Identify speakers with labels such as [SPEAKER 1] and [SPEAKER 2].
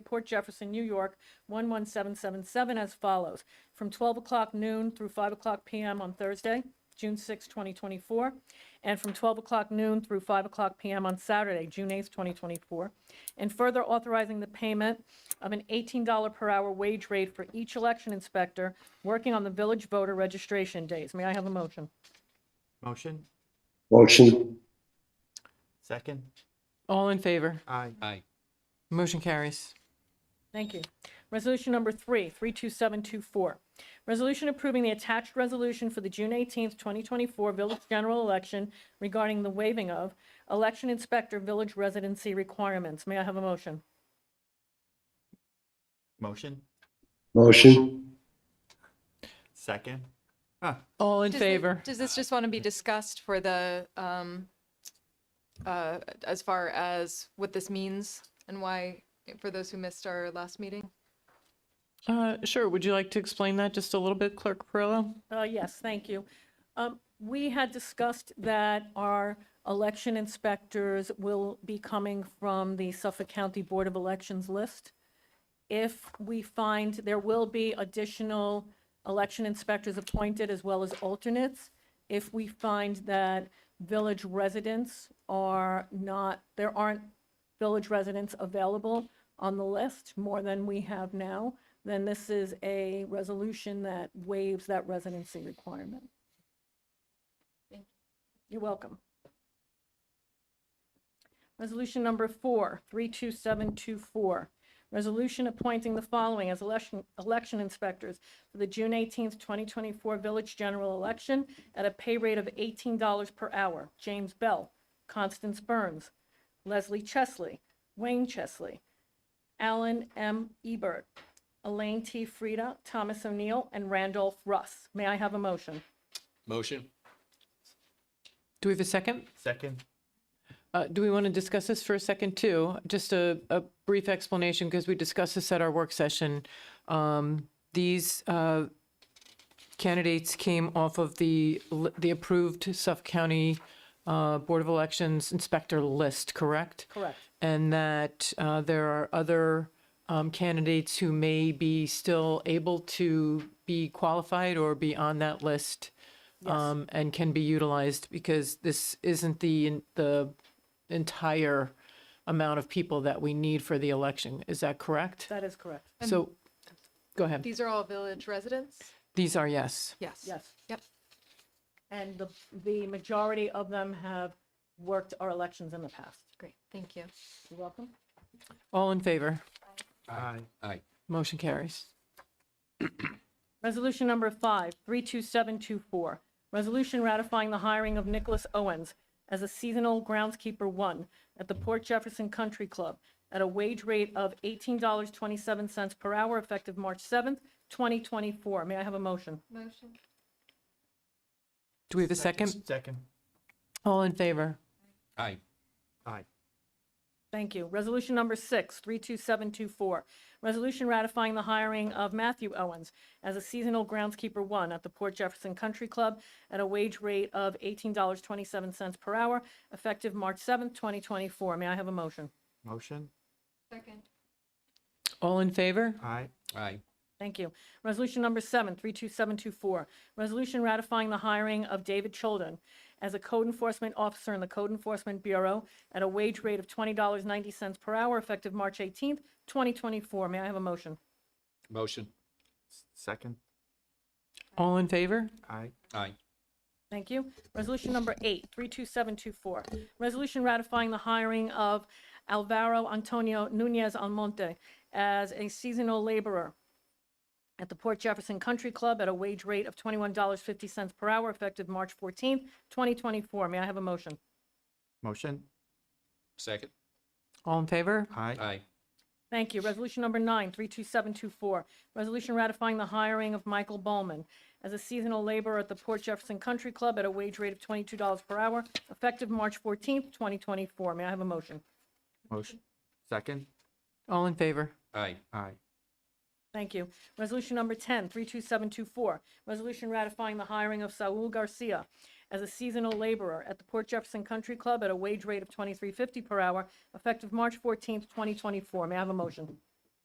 [SPEAKER 1] Port Jefferson, New York, 11777 as follows. From 12 o'clock noon through 5 o'clock PM on Thursday, June 6, 2024, and from 12 o'clock noon through 5 o'clock PM on Saturday, June 8, 2024, and further authorizing the payment of an $18 per hour wage rate for each election inspector working on the village voter registration days. May I have a motion?
[SPEAKER 2] Motion,
[SPEAKER 3] Motion,
[SPEAKER 2] second,
[SPEAKER 4] All in favor?
[SPEAKER 2] aye.
[SPEAKER 5] Aye.
[SPEAKER 4] Motion carries.
[SPEAKER 1] Thank you. Resolution number three, 32724. Resolution approving the attached resolution for the June 18th, 2024 village general election regarding the waiving of election inspector village residency requirements. May I have a motion?
[SPEAKER 2] Motion,
[SPEAKER 3] motion,
[SPEAKER 2] second,
[SPEAKER 4] All in
[SPEAKER 6] Does thi-
[SPEAKER 4] favor?
[SPEAKER 6] Does this just want to be discussed for the, um, uh, as far as what this means and why, for those who missed our last meeting?
[SPEAKER 4] Uh, Sure, would you like to explain that just a little bit, Clerk Perillo?
[SPEAKER 1] Uh, Yes, thank you. Um, We had discussed that our election inspectors will be coming from the Suffolk County Board of Elections list. If we find there will be additional election inspectors appointed as well as alternates, if we find that village residents are not, there aren't village residents available on the list, more than we have now, then this is a resolution that waives that residency requirement. You're welcome. Resolution number four, 32724. Resolution appointing the following as election, election inspectors for the June 18th, 2024 village general election at a pay rate of $18 per hour. James Bell, Constance Burns, Leslie Chesley, Wayne Chesley, Alan M. Ebert, Elaine T. Frida, Thomas O'Neill, and Randolph Russ. May I have a motion?
[SPEAKER 5] Motion.
[SPEAKER 4] Do we have a second?
[SPEAKER 2] second,
[SPEAKER 4] Uh, Do we want to discuss this for a second, too? Just a a brief explanation, because we discussed this at our work session. Um, These uh, candidates came off of the li- the approved Suffolk County uh, Board of Elections Inspector list, correct?
[SPEAKER 1] Correct.
[SPEAKER 4] and that uh, there are other um, candidates who may be still able to be qualified or be on that list um, and can be utilized because this isn't the the entire amount of people that we need for the election. Is that correct?
[SPEAKER 1] That is correct.
[SPEAKER 4] so, go ahead.
[SPEAKER 6] These are all village residents?
[SPEAKER 4] These are yes.
[SPEAKER 6] Yes.
[SPEAKER 1] Yes.
[SPEAKER 6] Yep.
[SPEAKER 1] And the, the majority of them have worked our elections in the past.
[SPEAKER 6] Great, thank you.
[SPEAKER 1] You're welcome.
[SPEAKER 4] All in favor.
[SPEAKER 2] aye.
[SPEAKER 5] Aye.
[SPEAKER 4] Motion carries.
[SPEAKER 1] Resolution number five, 32724. Resolution ratifying the hiring of Nicholas Owens as a seasonal groundskeeper one at the Port Jefferson Country Club at a wage rate of $18.27 per hour effective March 7th, 2024. May I have a motion?
[SPEAKER 6] Motion.
[SPEAKER 4] Do we have a second?
[SPEAKER 2] Second,
[SPEAKER 4] All in favor.
[SPEAKER 5] Aye.
[SPEAKER 2] aye.
[SPEAKER 1] Thank you. Resolution number six, 32724. Resolution ratifying the hiring of Matthew Owens as a seasonal groundskeeper one at the Port Jefferson Country Club at a wage rate of $18.27 per hour, effective March 7th, 2024. May I have a motion?
[SPEAKER 2] Motion,
[SPEAKER 6] Second.
[SPEAKER 4] All in favor.
[SPEAKER 2] aye.
[SPEAKER 5] Aye.
[SPEAKER 1] Thank you. Resolution number seven, 32724, resolution ratifying the hiring of David Cholden as a code enforcement officer in the Code Enforcement Bureau at a wage rate of $20.90 per hour effective March 18th, 2024. May I have a motion?
[SPEAKER 5] Motion.
[SPEAKER 2] Second,
[SPEAKER 4] All in favor.
[SPEAKER 2] aye.
[SPEAKER 5] Aye.
[SPEAKER 1] Thank you. Resolution number eight, 32724, resolution ratifying the hiring of Alvaro Antonio Nunez Almonte as a seasonal laborer at the Port Jefferson Country Club at a wage rate of $21.50 per hour effective March 14th, 2024. May I have a motion?
[SPEAKER 2] Motion,
[SPEAKER 5] Second.
[SPEAKER 4] All in favor.
[SPEAKER 2] aye.
[SPEAKER 5] Aye.
[SPEAKER 1] Thank you. Resolution number nine, 32724, resolution ratifying the hiring of Michael Bowman as a seasonal laborer at the Port Jefferson Country Club at a wage rate of $22 per hour effective March 14th, 2024. May I have a motion?
[SPEAKER 2] Motion, second,
[SPEAKER 4] All in favor.
[SPEAKER 5] Aye.
[SPEAKER 2] aye.
[SPEAKER 1] Thank you. Resolution number 10, 32724, resolution ratifying the hiring of Saul Garcia as a seasonal laborer at the Port Jefferson Country Club at a wage rate of 23.50 per hour effective March 14th, 2024. May I have a motion?